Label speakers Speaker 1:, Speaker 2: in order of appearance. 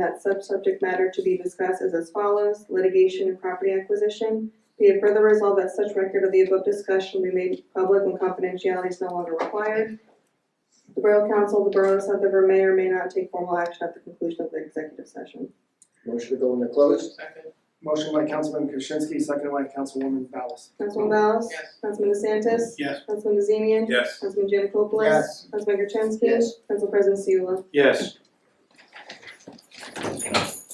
Speaker 1: That sub-subject matter to be discussed is as follows, litigation and property acquisition. Be it further resolved that such record of the above discussion be made public when confidentiality is no longer required. The Borough Council, of the Borough of South River may or may not take formal action at the conclusion of the executive session.
Speaker 2: Motion to go into closed?
Speaker 3: Second,
Speaker 4: Motion by Councilman Krasinski, second by Councilwoman Ballas.
Speaker 1: Councilman Ballas?
Speaker 3: Yes.
Speaker 1: Councilman DeSantis?
Speaker 5: Yes.
Speaker 1: Councilman Bazemian?
Speaker 5: Yes.
Speaker 1: Councilman Janikopoulos?
Speaker 2: Yes.
Speaker 1: Councilman Gertenski?
Speaker 2: Yes.
Speaker 1: Council President Seula?
Speaker 5: Yes.